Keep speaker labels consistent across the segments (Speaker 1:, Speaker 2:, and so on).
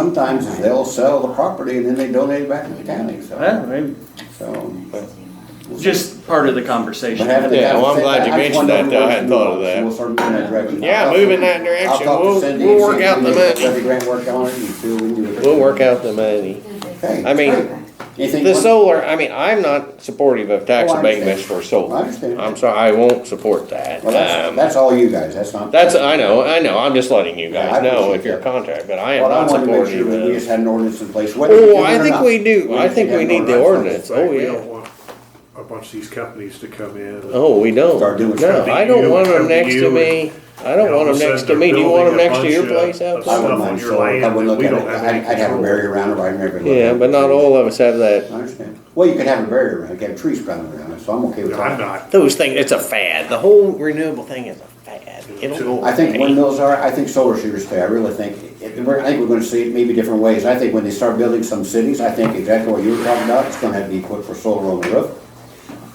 Speaker 1: Sometimes is they'll sell the property and then they donate it back to the county,
Speaker 2: Well,
Speaker 1: so,
Speaker 2: maybe
Speaker 1: so. but-
Speaker 2: just part of the
Speaker 1: But
Speaker 2: conversation.
Speaker 1: having the
Speaker 3: Yeah, well, I'm
Speaker 1: conversation-
Speaker 3: glad you
Speaker 1: I just
Speaker 3: mentioned
Speaker 1: wanna know
Speaker 3: that, though. I hadn't
Speaker 1: where
Speaker 3: thought of
Speaker 1: we move,
Speaker 3: that.
Speaker 1: so We'll start in that direction.
Speaker 3: Yeah,
Speaker 1: I'll talk
Speaker 3: move
Speaker 1: to-
Speaker 3: in that direction.
Speaker 1: I'll talk to
Speaker 3: We'll-
Speaker 1: Cindy
Speaker 3: we'll
Speaker 1: and see
Speaker 3: work
Speaker 1: if
Speaker 3: out
Speaker 1: we
Speaker 3: the
Speaker 1: can
Speaker 3: money.
Speaker 1: Let the grant work on it and see what we can do.
Speaker 3: We'll work out the money.
Speaker 1: Okay,
Speaker 3: I mean,
Speaker 1: great. Anything
Speaker 3: The
Speaker 1: one-
Speaker 3: solar, I mean, I'm not supportive of tax
Speaker 1: Oh, I understand.
Speaker 3: abatements for solar.
Speaker 1: I understand.
Speaker 3: I'm sorry, I won't support that.
Speaker 1: Well, that's,
Speaker 3: Um,
Speaker 1: that's all you guys, that's not.
Speaker 3: That's, I know, I know, I'm just letting you
Speaker 1: Yeah, I
Speaker 3: guys know
Speaker 1: appreciate
Speaker 3: if you're a
Speaker 1: that.
Speaker 3: contract, but I am
Speaker 1: What I
Speaker 3: not
Speaker 1: wanted to make sure
Speaker 3: supportive
Speaker 1: was we
Speaker 3: of.
Speaker 1: just had an ordinance in place, whether. we do
Speaker 3: Oh,
Speaker 1: it
Speaker 3: I
Speaker 1: or
Speaker 3: think
Speaker 1: not.
Speaker 3: we do, I
Speaker 1: just
Speaker 3: think
Speaker 1: have
Speaker 3: we
Speaker 1: an
Speaker 3: need the ordinance, oh,
Speaker 4: We
Speaker 3: yeah.
Speaker 4: don't want a bunch of these companies to come in. and-
Speaker 3: Oh, we don't.
Speaker 1: Start doing
Speaker 3: No,
Speaker 1: something
Speaker 3: I don't
Speaker 4: new,
Speaker 3: want them
Speaker 4: something
Speaker 3: next to
Speaker 4: new,
Speaker 3: me, I
Speaker 4: and
Speaker 3: don't
Speaker 4: all
Speaker 3: want
Speaker 4: of a
Speaker 3: them next
Speaker 4: sudden
Speaker 3: to me, do you
Speaker 4: they're
Speaker 3: want them
Speaker 4: building a
Speaker 3: next to your
Speaker 4: bunch of-
Speaker 3: place out
Speaker 4: of
Speaker 1: I
Speaker 3: there?
Speaker 4: stuff.
Speaker 1: wouldn't
Speaker 4: on
Speaker 1: mind
Speaker 4: your
Speaker 1: solar, I
Speaker 4: land
Speaker 1: would
Speaker 4: that
Speaker 1: look
Speaker 4: we
Speaker 1: at it,
Speaker 4: don't have
Speaker 1: I'd,
Speaker 4: any
Speaker 1: I'd have a
Speaker 4: control
Speaker 1: barrier around it, but I'd never. look
Speaker 3: Yeah,
Speaker 1: at it.
Speaker 3: but not all of us have that.
Speaker 1: I understand, well, you could have a barrier around it, you could have trees growing around it, so I'm okay with
Speaker 4: No,
Speaker 1: that.
Speaker 4: I'm not.
Speaker 3: Those things, it's a fad, the whole renewable thing is a fad, it'll go
Speaker 1: I think
Speaker 3: away.
Speaker 1: windmills are, I think solar should stay, I really think, it- we're- I think we're gonna see it maybe different ways. I think when they start building some cities, I think exactly what you were talking about, it's gonna have to be equipped for solar on the roof.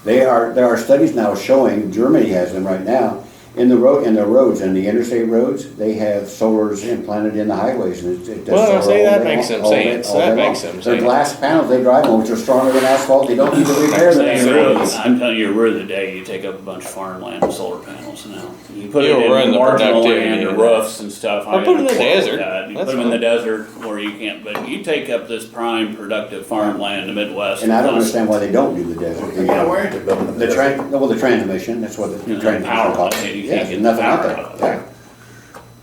Speaker 1: They are, there are studies now showing, Germany has them right now, in the road, in the roads, in the interstate roads, they have solars implanted in the highways and it- it does.
Speaker 3: Well,
Speaker 1: solar
Speaker 3: see,
Speaker 1: all
Speaker 3: that
Speaker 1: day long-
Speaker 3: makes some
Speaker 1: all day-
Speaker 3: sense.
Speaker 1: all day
Speaker 3: That
Speaker 1: long.
Speaker 3: makes some
Speaker 1: They're
Speaker 3: sense.
Speaker 1: glass panels, they drive on, which are stronger than asphalt, they don't need to repair them.
Speaker 5: Saying roads, I'm telling you, we're the day you take up a bunch of farmland with solar panels now. You put it
Speaker 3: You'll run
Speaker 5: in
Speaker 3: the
Speaker 5: marginal
Speaker 3: productivity
Speaker 5: land or
Speaker 3: of
Speaker 5: roofs and stuff.
Speaker 3: Or
Speaker 5: I
Speaker 3: put it in the
Speaker 5: ain't quarrel with
Speaker 3: desert.
Speaker 5: that. You put
Speaker 3: That's
Speaker 5: them in the
Speaker 3: fine.
Speaker 5: desert where you can't, but you take up this prime productive farmland in the Midwest.
Speaker 1: And I don't
Speaker 5: plus-
Speaker 1: understand why they don't do the desert.
Speaker 6: Yeah, where is it building?
Speaker 1: The train, well, the transmission, that's what the
Speaker 5: You know,
Speaker 1: train.
Speaker 5: power
Speaker 1: calls
Speaker 5: line,
Speaker 1: it.
Speaker 5: you
Speaker 1: Yeah,
Speaker 5: can't get
Speaker 1: nothing
Speaker 5: the
Speaker 1: out
Speaker 5: power out of
Speaker 1: there.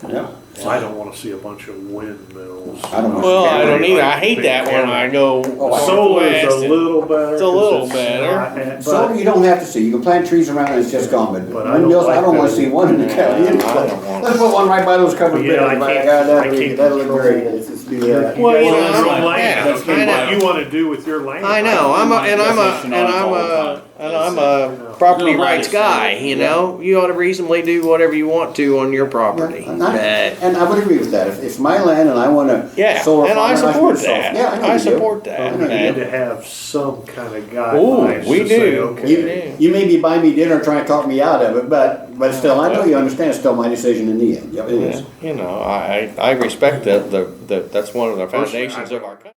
Speaker 1: Yeah. Yeah.
Speaker 4: I don't wanna see a bunch of windmills.
Speaker 1: I don't want-
Speaker 3: Well, I don't either, I hate that when I go
Speaker 1: Oh,
Speaker 4: Solar's a
Speaker 3: southwest and
Speaker 4: little better.
Speaker 3: It's a little
Speaker 4: 'cause
Speaker 3: better.
Speaker 4: it's not-
Speaker 1: So
Speaker 4: But
Speaker 1: you don't have to see, you can plant trees around it, it's just gone,
Speaker 4: But
Speaker 1: but
Speaker 4: I don't
Speaker 1: windmills, I
Speaker 4: like
Speaker 1: don't wanna
Speaker 4: that.
Speaker 1: see one in the county.
Speaker 6: I don't want-
Speaker 1: Let's put one right by those covered
Speaker 4: Yeah, I
Speaker 1: buildings, my
Speaker 4: can't-
Speaker 1: God,
Speaker 4: I
Speaker 1: that'd be,
Speaker 4: can't
Speaker 1: that'd look
Speaker 4: control
Speaker 1: great.
Speaker 6: It's just be
Speaker 4: uh,
Speaker 6: that.
Speaker 3: Well, you know,
Speaker 4: that's
Speaker 3: I'm
Speaker 4: your
Speaker 3: like,
Speaker 4: land,
Speaker 3: yeah,
Speaker 4: that's
Speaker 3: I
Speaker 4: what
Speaker 3: know.
Speaker 4: you wanna do with your land.
Speaker 3: I know. I'm a, and I'm a and I'm a and I'm a property rights guy. You know, you ought to reasonably do whatever you want to on your property.
Speaker 1: Yeah, not-
Speaker 3: Uh,
Speaker 1: And I would agree with that, if it's my land and I wanna.
Speaker 3: yeah,
Speaker 1: solar
Speaker 3: and
Speaker 1: farm
Speaker 3: I
Speaker 1: it, can
Speaker 3: support
Speaker 1: do so.
Speaker 3: that.
Speaker 1: Yeah, I know
Speaker 3: I
Speaker 1: you do. I
Speaker 3: support
Speaker 1: know
Speaker 3: that.
Speaker 1: you
Speaker 4: We need
Speaker 3: man.
Speaker 4: to have some kind of
Speaker 3: Ooh,
Speaker 4: guidelines
Speaker 3: we
Speaker 4: to say,
Speaker 3: do.
Speaker 4: okay.
Speaker 1: You, you may be buying me dinner trying to talk me out of it, but, but still, I know you understand, it's still my decision
Speaker 3: uh,
Speaker 1: in the end, yeah, it is.
Speaker 3: Yeah, You know, I I I respect that. The, the that's one of the foundations of our. country.